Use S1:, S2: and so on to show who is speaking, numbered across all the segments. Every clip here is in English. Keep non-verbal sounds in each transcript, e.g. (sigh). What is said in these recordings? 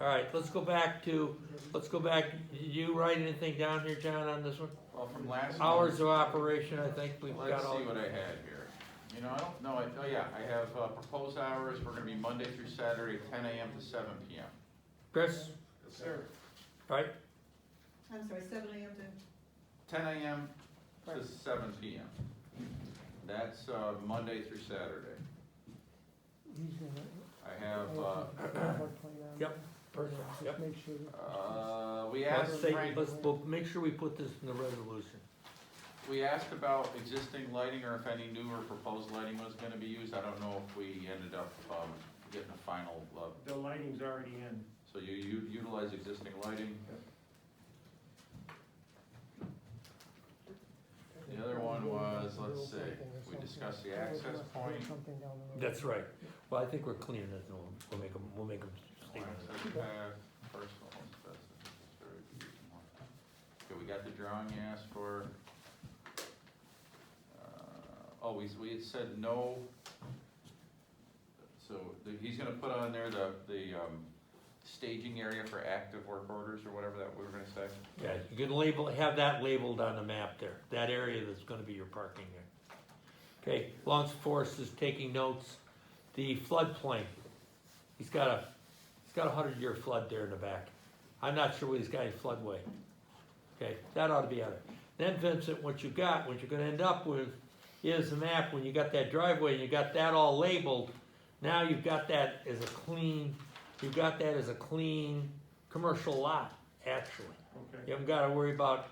S1: All right, let's go back to, let's go back, did you write anything down here, John, on this one?
S2: Well, from last.
S1: Hours of operation, I think we've
S2: Let's
S1: got all.
S2: see what I had here. You know, I don't know, I, oh yeah, I have uh, proposed hours, we're gonna be Monday through Saturday, ten AM to seven PM.
S1: Chris,
S2: Sir.
S1: right,
S3: I'm sorry, seven AM to,
S2: Ten AM to seven PM. That's, uh, Monday through Saturday. I have,
S4: (clears throat)
S2: uh,
S1: Yep. person, yep.
S4: Make sure.
S2: uh, we
S1: Let's
S2: asked
S1: say,
S2: Frank,
S1: let's, we'll make sure we put this in the resolution.
S2: we asked about existing lighting or if any new or proposed lighting was gonna be used. I don't know if we ended up, um, getting a final, uh,
S5: The lighting's already in.
S2: So you, you utilize existing lighting? The other one was, let's see, we discussed the access point.
S1: That's right. Well, I think we're cleaning it, we'll, we'll make them, we'll make them statement.
S2: Access path, personal access, very good. Okay, we got the drawing you asked for. Uh, Oh, we, we had said no. So the- he's gonna put on there the, the um, staging area for active work orders or whatever that we were gonna say.
S1: Yeah, you can label, have that labeled on the map there, that area that's gonna be your parking there. Okay, Lawrence Forest is taking notes, the floodplain, he's got a, he's got a hundred year flood there in the back. I'm not sure what he's got in floodway. Okay, that ought to be out there. Then Vincent, what you got, what you're gonna end up with is the map, when you got that driveway, and you got that all labeled, now you've got that as a clean, you've got that as a clean commercial lot, actually.
S5: Okay.
S1: You haven't gotta worry about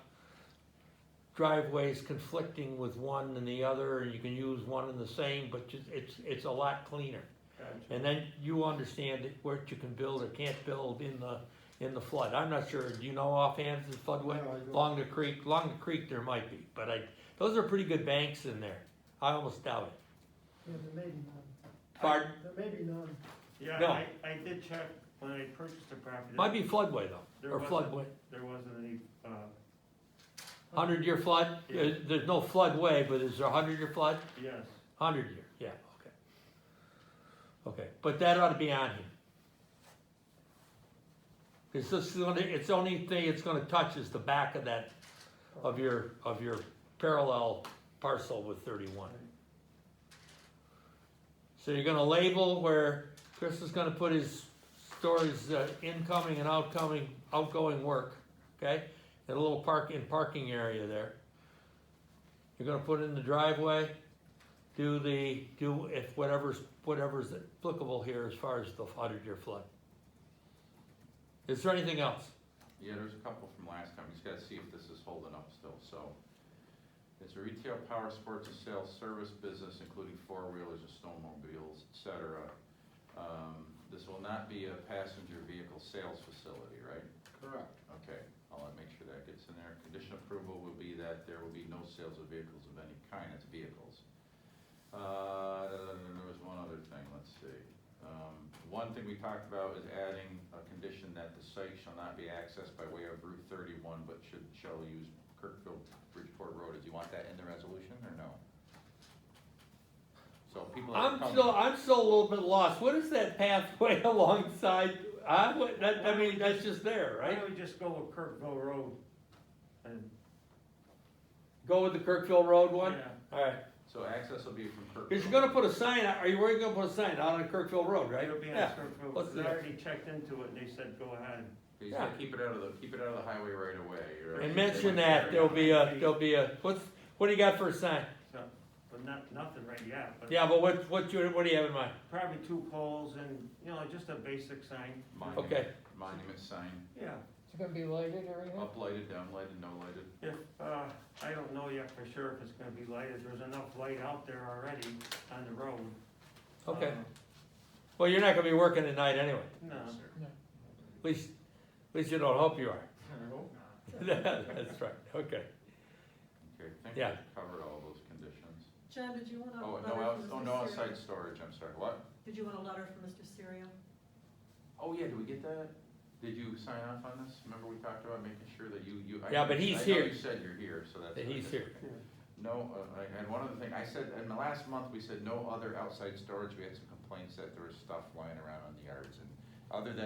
S1: driveways conflicting with one and the other, and you can use one and the same, but ju- it's, it's a lot cleaner.
S5: Gotcha.
S1: And then you understand that what you can build or can't build in the, in the flood. I'm not sure, do you know offhand the floodway?
S4: No, I don't.
S1: Along the creek, along the creek there might be, but I, those are pretty good banks in there. I almost doubt it.
S4: Yeah, there may be none,
S1: Pardon,
S4: there may be none.
S5: Yeah,
S1: No.
S5: I, I did check when I purchased the property.
S1: might be floodway though,
S5: There
S1: or
S5: wasn't.
S1: floodway.
S5: There wasn't any, uh,
S1: Hundred year flood,
S5: Yeah.
S1: Uh, there's no floodway, but is there a hundred year flood?
S5: yes,
S1: Hundred year, yeah, okay. Okay, but that ought to be on here. It's just, the only- it's the only thing it's gonna touch is the back of that, of your, of your parallel parcel with thirty-one. So you're gonna label where Chris is gonna put his stories, uh, incoming and outgoing, outgoing work, okay? And a little park, in parking area there. You're gonna put in the driveway, do the, do if whatever's, whatever's applicable here as far as the hundred-year flood. Is there anything else?
S2: Yeah, there's a couple from last time, just gotta see if this is holding up still, so. It's a retail power sports and sales service business, including four-wheelers and snowmobiles, et cetera. Um, this will not be a passenger vehicle sales facility, right?
S6: Correct.
S2: Okay, I'll make sure that gets in there. Condition approval will be that there will be no sales of vehicles of any kind, it's vehicles. Uh, there was one other thing, let's see. Um, one thing we talked about is adding a condition that the site shall not be accessed by way of Route thirty-one, but should, shall use Kirkville Bridgeport Road. Do you want that in the resolution or no? So people that
S1: I'm
S2: are coming.
S1: still, I'm still a little bit lost. What is that pathway (laughs) alongside, I, would- that, I mean, that's just there,
S5: why
S1: right?
S5: don't we just go with Kirkville Road? And,
S1: Go with the Kirkville Road one?
S5: yeah,
S1: Alright,
S2: So access will be from Kirkville.
S1: cause you're gonna put a sign, out- are you, where you gonna put a sign? Out on Kirkville Road, right?
S5: it'll be on
S1: Yeah.
S5: Kirkville,
S1: What's
S5: they
S1: the-
S5: already checked into it and they said, go ahead.
S2: You just gotta
S1: Yeah.
S2: keep it out of the, keep it out of the highway right away. or-
S1: And mention that, there'll be a, there'll be a, what's, what do you got for a sign?
S5: So, but not, nothing right yet, but
S1: Yeah, but what, what you, what do you have in mind?
S5: probably two poles and, you know, just a basic sign.
S2: Monument-
S1: Okay,
S2: Monument sign,
S5: Yeah,
S4: It's gonna be lighted or anything?
S2: uplighted, downlighted, no lighted.
S5: if, uh, I don't know yet for sure if it's gonna be lighted, there's enough light out there already on the road.
S1: okay.
S5: Uh,
S1: Well, you're not gonna be working at night anyway.
S5: No,
S1: At least, at least you don't hope you are. (laughs) That's right, okay.
S2: Okay, I think
S1: Yeah.
S2: we've covered all those conditions.
S3: John, did you want a
S2: Oh,
S3: letter
S2: no, outs-
S3: from
S2: oh,
S3: Mr.
S2: no
S3: Serio?
S2: outside storage, I'm sorry, what?
S3: Did you want a letter from Mr. Serio?
S2: Oh, yeah, did we get that? Did you sign off on this? Remember we talked about making sure that you, you. I
S1: Yeah,
S2: know
S1: but
S2: you-
S1: he's
S2: I
S1: here.
S2: know you said you're here, so that's.
S1: That
S2: what I
S1: he's here.
S2: did.
S5: Yeah.
S2: No, uh, I- and one other thing, I said, in the last month, we said no other outside storage, we had some complaints that there was stuff lying around on the yards and other than